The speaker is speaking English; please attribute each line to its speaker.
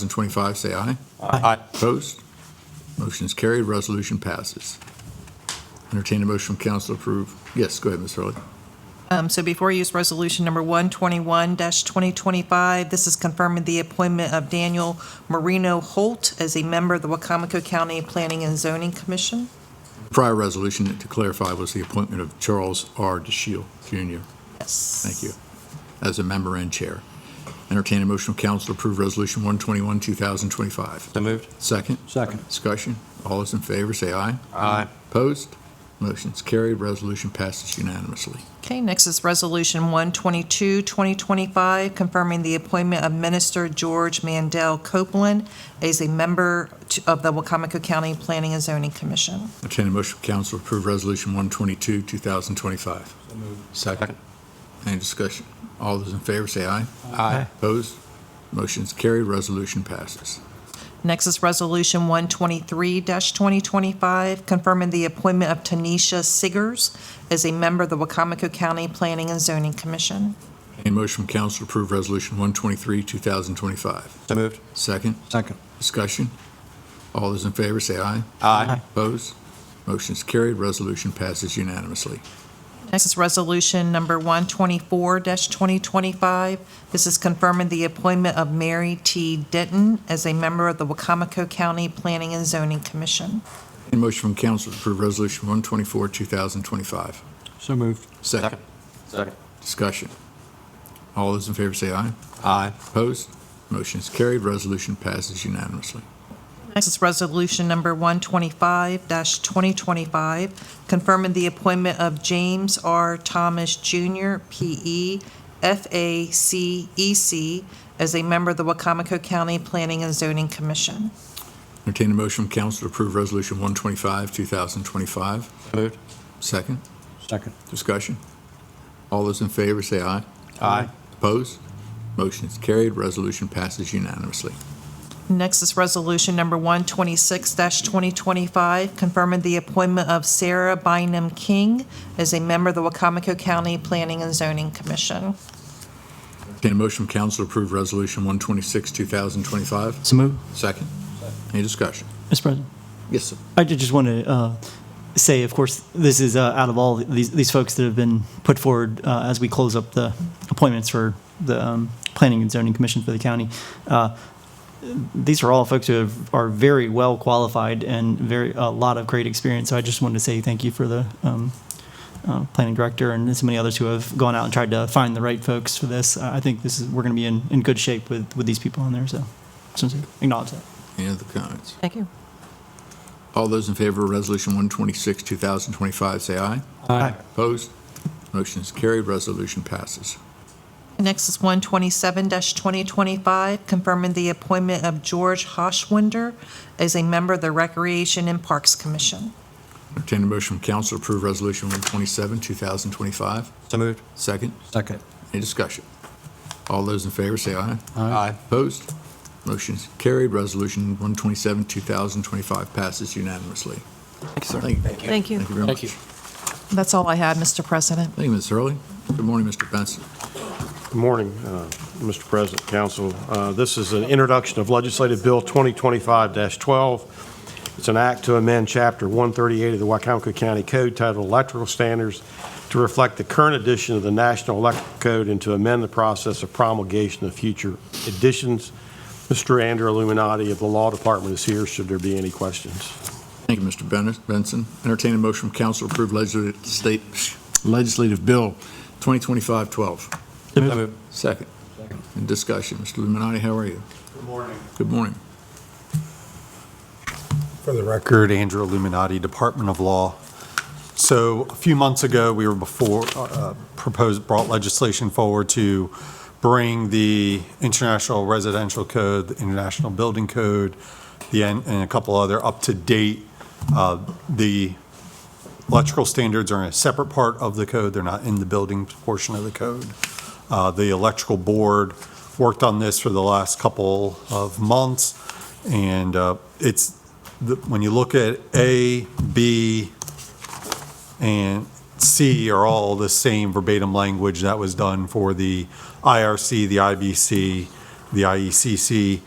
Speaker 1: 2025, say aye.
Speaker 2: Aye.
Speaker 1: Opposed? Motion is carried, resolution passes. Entertain a motion from council to approve. Yes, go ahead, Ms. Hurley.
Speaker 3: Um, So before you use resolution number 121-2025, this is confirming the appointment of Daniel Marino Holt as a member of the Wacomico County Planning and Zoning Commission.
Speaker 1: Prior resolution, to clarify, was the appointment of Charles R. DeShiel Jr.
Speaker 3: Yes.
Speaker 1: Thank you. As a member and chair. Entertain a motion from council to approve Resolution 121, 2025.
Speaker 2: So moved.
Speaker 1: Second,
Speaker 2: Second.
Speaker 1: discussion. All those in favor, say aye.
Speaker 2: Aye.
Speaker 1: Opposed? Motion is carried, resolution passes unanimously.
Speaker 3: Okay, next is Resolution 122-2025, confirming the appointment of Minister George Mandel Copeland as a member to- of the Wacomico County Planning and Zoning Commission.
Speaker 1: Entertain a motion from council to approve Resolution 122, 2025. Second.
Speaker 2: Second.
Speaker 1: Any discussion? All those in favor say aye.
Speaker 2: Aye.
Speaker 1: Opposed? Motion's carried, resolution passes.
Speaker 3: Next is Resolution 123-2025, confirming the appointment of Tanisha Siggers as a member of the Wacomico County Planning and Zoning Commission.
Speaker 1: Any motion from council to approve Resolution 123, 2025.
Speaker 2: So moved.
Speaker 1: Second,
Speaker 2: Second.
Speaker 1: discussion. All those in favor say aye.
Speaker 2: Aye.
Speaker 1: Opposed? Motion's carried, resolution passes unanimously.
Speaker 3: Next is Resolution Number 124-2025. This is confirming the appointment of Mary T. Denton as a member of the Wacomico County Planning and Zoning Commission.
Speaker 1: Any motion from council to approve Resolution 124, 2025.
Speaker 2: So moved.
Speaker 1: Second,
Speaker 2: Second.
Speaker 1: discussion. All those in favor say aye.
Speaker 2: Aye.
Speaker 1: Opposed? Motion's carried, resolution passes unanimously.
Speaker 3: Next is Resolution Number 125-2025, confirming the appointment of James R. Thomas E, Jr., P.E., F.A.C.E.C., E as a member of the Wacomico County Planning and Zoning Commission.
Speaker 1: Entertain a motion from council to approve Resolution 125, 2025.
Speaker 2: Moved.
Speaker 1: Second,
Speaker 2: Second.
Speaker 1: discussion. All those in favor say aye.
Speaker 2: Aye.
Speaker 1: Opposed? Motion is carried, resolution passes unanimously.
Speaker 3: Next is Resolution Number 126-2025, confirming the appointment of Sarah Bynum King as a member of the Wacomico County Planning and Zoning Commission.
Speaker 1: Entertain a motion from council to approve Resolution 126, 2025.
Speaker 4: So moved.
Speaker 1: Second, any discussion?
Speaker 4: Mr. President,
Speaker 1: Yes, sir.
Speaker 4: I ju- just want to uh, say, of course, this is uh, out of all these, these folks that have been put forward uh, as we close up the appointments for the um, Planning and Zoning Commission for the county. Uh, these are all folks who have, are very well qualified and very a lot of great experience. So I just wanted to say thank you for the um, uh, planning director and so many others who have gone out and tried to find the right folks for this. I I think this is we're going to be in, in good shape with, with these people on there. So just wanted to acknowledge that.
Speaker 1: Any other comments?
Speaker 3: Thank you.
Speaker 1: All those in favor of Resolution 126, 2025, say aye.
Speaker 2: Aye.
Speaker 1: Opposed? Motion is carried, resolution passes.
Speaker 3: Next is 127-2025, confirming the appointment of George Hoshwinder as a member of the Recreation and Parks Commission.
Speaker 1: Entertain a motion from council to approve Resolution 127, 2025.
Speaker 2: So moved.
Speaker 1: Second,
Speaker 2: Second.
Speaker 1: any discussion? All those in favor say aye.
Speaker 2: Aye.
Speaker 1: Opposed? Motion is carried. Resolution 127, 2025 passes unanimously. Thank you, sir. Thank you.
Speaker 3: Thank you.
Speaker 1: Thank you very much.
Speaker 3: That's all I had, Mr. President.
Speaker 1: Thank you, Ms. Hurley. Good morning, Mr. Benson.
Speaker 5: Good morning, uh, Mr. President, Council. Uh, This is an introduction of Legislative Bill 2025-12. It's an act to amend Chapter 138 of the Wycomico County Code titled Electrical Standards to reflect the current edition of the National Electrical Code and to amend the process of promulgation of future editions. Mr. Andrew Illuminati of the Law Department is here, should there be any questions.
Speaker 1: Thank you, Mr. Ben- Benson. Entertain a motion from council to approve legislative state, legislative bill 2025-12.
Speaker 2: So moved.
Speaker 1: Second. In discussion, Mr. Luminati, how are you? Good morning. Good morning.
Speaker 6: For the record, Andrew Illuminati, Department of Law. So a few months ago, we were before, uh, proposed, brought legislation forward to bring the International Residential Code, the International Building Code, the, and and a couple other up to date. Uh, The electrical standards are a separate part of the code. They're not in the building portion of the code. Uh, The electrical board worked on this for the last couple of months. And uh, it's, the- when you look at A, B, and C are all the same verbatim E language that was done for the IRC, the IBC, the IECC,